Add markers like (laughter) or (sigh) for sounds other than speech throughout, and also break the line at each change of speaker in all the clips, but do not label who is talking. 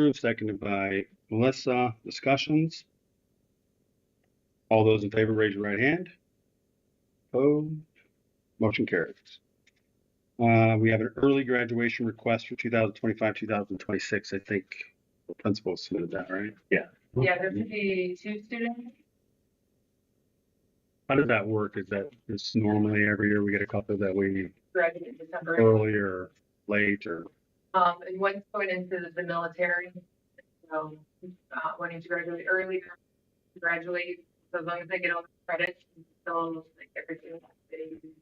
approved, seconded by Melissa. Discussions? All those in favor, raise your right hand. Opposed? Motion carries. Uh, we have an early graduation request for 2025, 2026. I think the principal submitted that, right? Yeah.
Yeah, there should be two students.
How does that work? Is that, is normally every year we get a couple that we
graduate in December.
early or late or?
Um, and one's going into the military. So, uh, wanting to graduate early, graduate, so as long as they get all the credits, still like everything.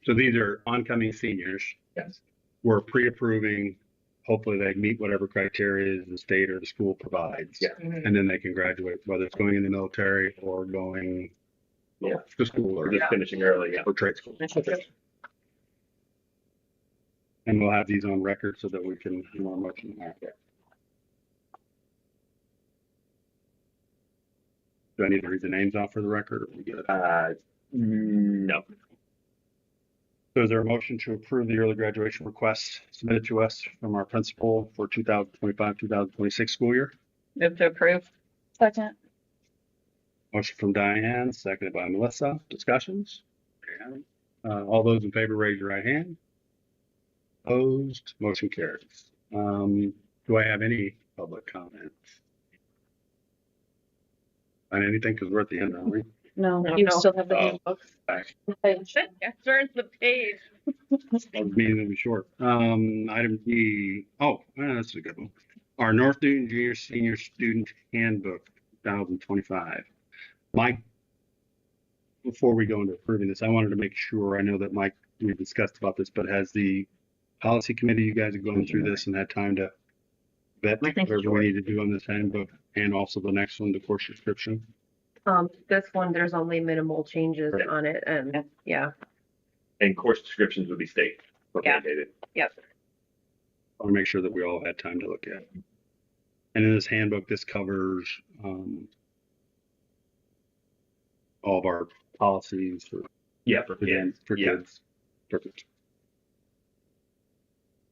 So these are oncoming seniors.
Yes.
We're pre-approving. Hopefully they meet whatever criteria the state or the school provides.
Yeah.
And then they can graduate, whether it's going in the military or going
Yeah.
to school
We're
or,
just finishing early, yeah.
or trade school. And we'll have these on record so that we can, you know, much. Do I need to read the names off for the record? or we good?
Uh, no,
So is there a motion to approve the early graduation request submitted to us from our principal for 2025, 2026 school year?
Move to approve.
Second.
Motion from Diane, seconded by Melissa. Discussions? There you have it. Uh, all those in favor, raise your right hand. Opposed, motion carries. Um, do I have any public comments? On anything, because we're at the end, aren't we?
No,
No,
you
no.
still have the
Oh.
handbook.
Sorry.
Okay.
Turns the page.
I was meaning to be short. Um, item D, oh, yeah, that's a good one. Our North Newton Junior Senior Student Handbook, 2025. Mike, before we go into approving this, I wanted to make sure, I know that Mike, we discussed about this, but has the policy committee, you guys have gone through this and had time to vet
I think
whatever we need to do on this handbook and also the next one, the course description?
Um, this one, there's only minimal changes
Right.
on it and, yeah,
and course descriptions would be state.
Yeah.
mandated.
yep.
I want to make sure that we all had time to look at. it. And in this handbook, this covers um, all of our policies for
Yeah,
for
yeah,
kids. For
yeah.
kids. Perfect. Is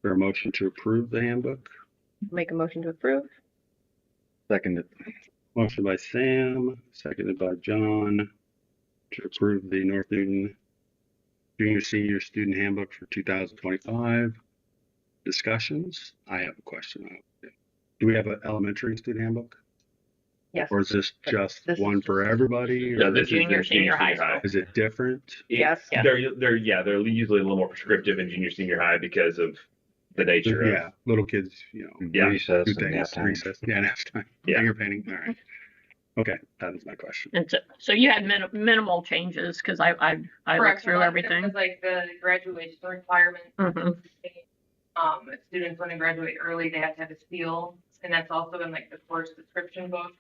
There a motion to approve the handbook?
Make a motion to approve.
Second,
Motion by Sam, seconded by John, to approve the North Newton Junior Senior Student Handbook for 2025. Discussions? I have a question. Do we have an elementary student handbook?
Yes,
Or is this just
This is
one for everybody?
Yeah,
or
this is the
Junior, senior high school.
Is it different?
It-
Yes.
Yeah.
They're, they're, yeah, they're usually a little more prescriptive in junior, senior high because of the nature of.
Yeah, little kids, you know,
Yeah.
recess
do
and nap
things,
time.
recess, yeah, nap time,
Yeah.
finger painting, all right. Okay, that is my question.
And so, so you had min- minimal changes, because I, I, I looked through everything.
Like the graduation requirements.
Mhm.
(laughs) Um, if students want to graduate early, they have to have a seal, and that's also in like the course description book.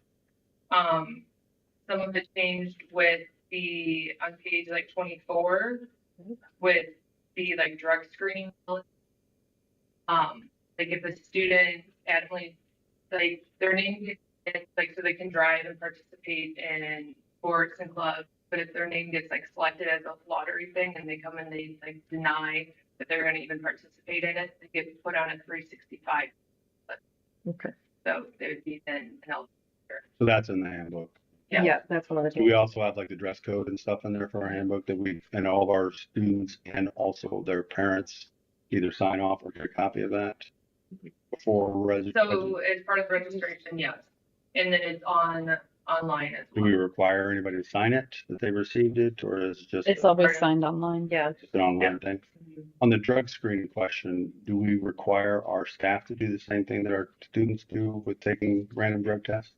Um, some of it changed with the, on page like twenty-four, with the like drug screening. Um, like if a student adamantly, like their name gets, it's, like, so they can drive and participate in sports and clubs, but if their name gets like selected as a lottery thing and they come and they like deny that they're gonna even participate in it, they get put on a three sixty-five.
Okay.
So they would be then an eligible.
So that's in the handbook.
Yeah.
Yeah, that's one of the
Do we
changes.
also have like the dress code and stuff in there for our handbook that we, and all of our students and also their parents either sign off or get a copy of that? For registration,
So as part of registration, yes. And then it's on, online as
do we
well.
require anybody to sign it, that they received it, or is it just
It's
a-
always signed online.
Yeah,
just an online thing? On the drug screening question, do we require our staff to do the same thing that our students do with taking random drug tests?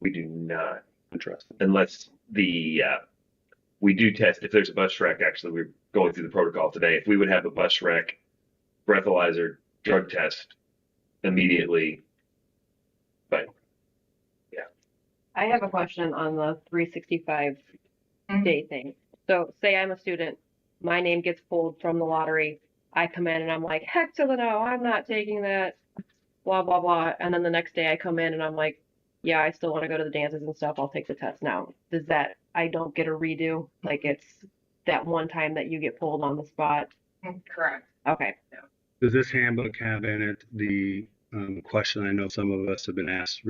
We do not,
Interesting.
unless the, uh, we do test, if there's a bus wreck, actually, we're going through the protocol today. If we would have a bus wreck, breathalyzer, drug test immediately,
I have a question on the three sixty-five day thing. So say I'm a student, my name gets pulled from the lottery, I come in and I'm like, heck to the no, I'm not taking that, blah, blah, blah. And then the next day I come in and I'm like, yeah, I still want to go to the dances and stuff, I'll take the test now. Does that, I don't get a redo, like it's that one time that you get pulled on the spot?
Mhm, Correct.
Okay.
Does this handbook have in it the um, question I know some of us have been asked